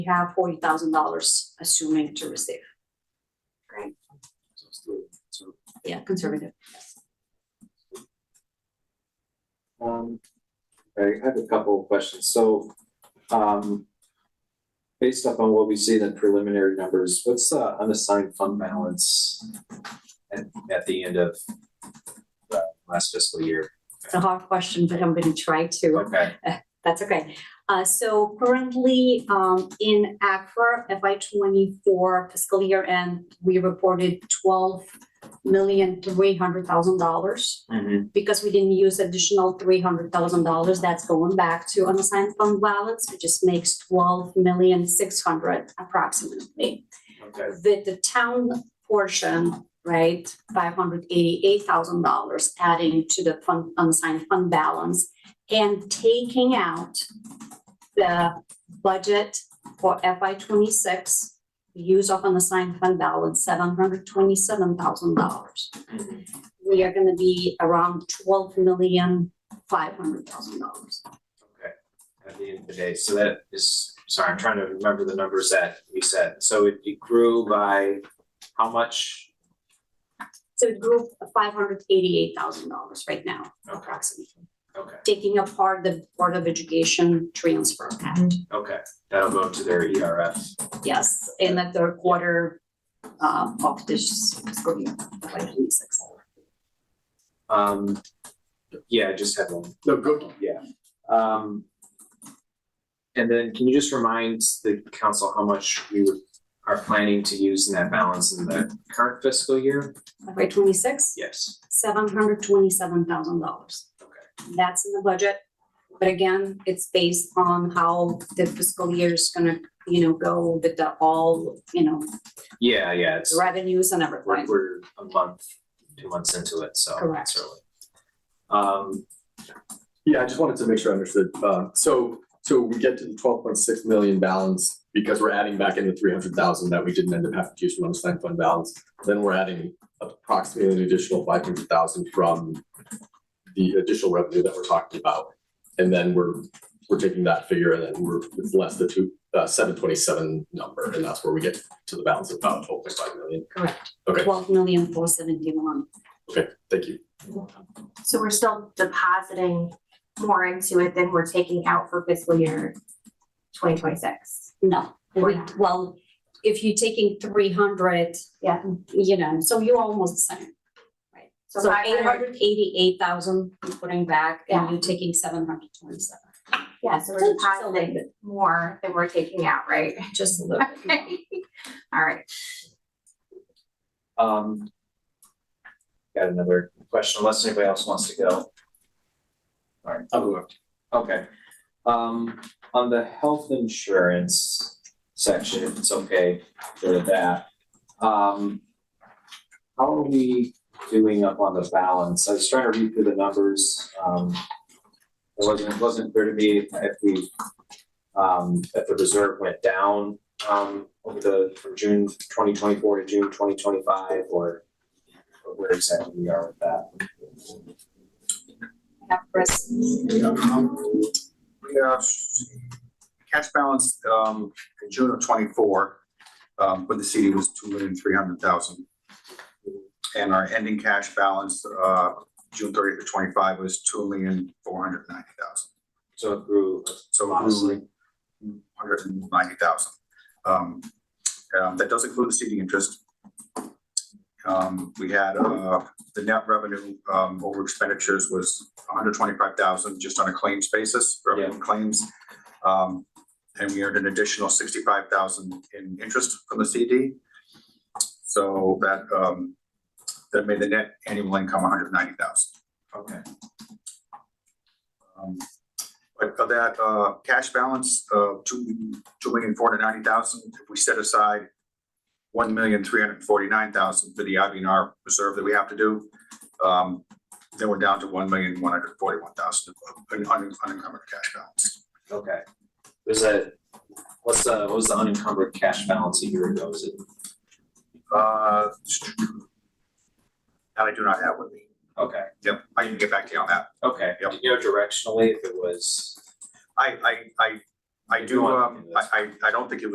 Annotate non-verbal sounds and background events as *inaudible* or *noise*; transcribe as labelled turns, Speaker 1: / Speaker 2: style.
Speaker 1: we have forty thousand dollars assuming to receive.
Speaker 2: So it's three. So,
Speaker 1: Yeah, conservative.
Speaker 2: um, I have a couple of questions. So, um, based upon what we see in the preliminary numbers, what's the unassigned fund balance at, at the end of the last fiscal year?
Speaker 1: It's a hard question, but I'm gonna try to.
Speaker 2: Okay,
Speaker 1: That's okay. Uh, so currently, um, in ACFR FY twenty-four fiscal year end, we reported twelve million three hundred thousand dollars.
Speaker 2: Mhm.
Speaker 1: Because we didn't use additional three hundred thousand dollars, that's going back to unassigned fund balance, which just makes twelve million six hundred approximately.
Speaker 2: okay,
Speaker 1: with the town portion, right, five hundred eighty-eight thousand dollars adding to the fund, unsigned fund balance and taking out the budget for FY twenty-six, use of unassigned fund balance, seven hundred twenty-seven thousand dollars.
Speaker 2: Mhm.
Speaker 1: We are gonna be around twelve million five hundred thousand dollars.
Speaker 2: okay. At the end of the day, so that is, sorry, I'm trying to remember the numbers that we said. So it it grew by how much?
Speaker 1: So it grew five hundred eighty-eight thousand dollars right now,
Speaker 2: Okay,
Speaker 1: approximately.
Speaker 2: okay.
Speaker 1: taking apart the Board of Education transfer act.
Speaker 2: Okay, that'll go to their E ERF.
Speaker 1: Yes, in the third quarter um, of this fiscal year, FY twenty-six.
Speaker 2: Um, yeah, I just had one,
Speaker 3: No, good.
Speaker 2: yeah. Um, and then can you just remind the council how much we would- are planning to use in that balance in the current fiscal year?
Speaker 1: FY twenty-six,
Speaker 2: Yes.
Speaker 1: seven hundred twenty-seven thousand dollars. That's in the budget, but again, it's based on how the fiscal year is gonna, you know, go with the all, you know,
Speaker 2: Yeah, yeah, it's,
Speaker 1: revenues and everything.
Speaker 2: we're, we're a month, two months into it, so. it's
Speaker 1: Correct.
Speaker 2: early. Um,
Speaker 3: Yeah, I just wanted to make sure I understood. Um, so, so we get to the twelve point six million balance because we're adding back in the three hundred thousand that we didn't end up having to use from unassigned fund balance. Then we're adding approximately an additional five hundred thousand from the additional revenue that we're talking about. And then we're, we're taking that figure and then we're, it's less the two, uh, seven twenty-seven number, and that's where we get to the balance of about twelve point five million.
Speaker 1: Correct.
Speaker 3: Okay.
Speaker 1: Twelve million four seventy-one.
Speaker 3: Okay, thank you.
Speaker 4: So we're still depositing more into it than we're taking out for fiscal year twenty twenty-six.
Speaker 1: No, we,
Speaker 4: Wow.
Speaker 1: well, if you're taking three hundred,
Speaker 4: Yeah.
Speaker 1: you know, so you're almost the same.
Speaker 4: So
Speaker 1: So
Speaker 4: five
Speaker 1: eight
Speaker 4: hundred,
Speaker 1: hundred eighty-eight thousand you're putting back and
Speaker 4: Yeah.
Speaker 1: you're taking seven hundred twenty-seven.
Speaker 4: yeah, so we're depositing more than we're taking out, right?
Speaker 1: Just a
Speaker 4: *laughs*
Speaker 1: little bit. more.
Speaker 4: All right,
Speaker 2: um, got another question, unless anybody else wants to go.
Speaker 3: I'll go
Speaker 2: Okay, um, on the health insurance section, if it's okay, go to that. Um, how are we doing up on the balance? I was trying to read through the numbers, um, it wasn't, it wasn't clear to me if we, um, if the reserve went down, um, over the, from June twenty twenty-four to June twenty twenty-five, or or where exactly we are with that.
Speaker 1: Yeah, Chris,
Speaker 5: We have cash balance um in June of twenty-four, um when the CD was two million three hundred thousand. And our ending cash balance uh June thirtieth of twenty-five was two million four hundred ninety thousand.
Speaker 2: So it grew
Speaker 5: So
Speaker 2: Honestly.
Speaker 5: honestly, hundred and ninety thousand. Um, um, that does include the CD interest. Um, we had, uh, the net revenue, um, over expenditures was hundred twenty-five thousand, just on a claims basis, revenue and claims. Um, and we earned an additional sixty-five thousand in interest from the CD. So that, um, that made the net annual income hundred ninety thousand.
Speaker 2: Okay.
Speaker 5: Um, But of that, uh, cash balance of two, two million four hundred ninety thousand, if we set aside one million three hundred forty-nine thousand for the IBNR reserve that we have to do, um, then we're down to one million one hundred forty-one thousand in un- unencumbered cash balance.
Speaker 2: Okay. Was that, what's the, what was the unencumbered cash balance a year ago? Is it,
Speaker 5: Uh, that I do not have with me.
Speaker 2: okay,
Speaker 5: Yep, I can get back to you on that.
Speaker 2: okay.
Speaker 5: Yep.
Speaker 2: Do you know directionally if it was?
Speaker 5: I, I, I, I
Speaker 2: If you
Speaker 5: do,
Speaker 2: want,
Speaker 5: um, I, I, I don't think it was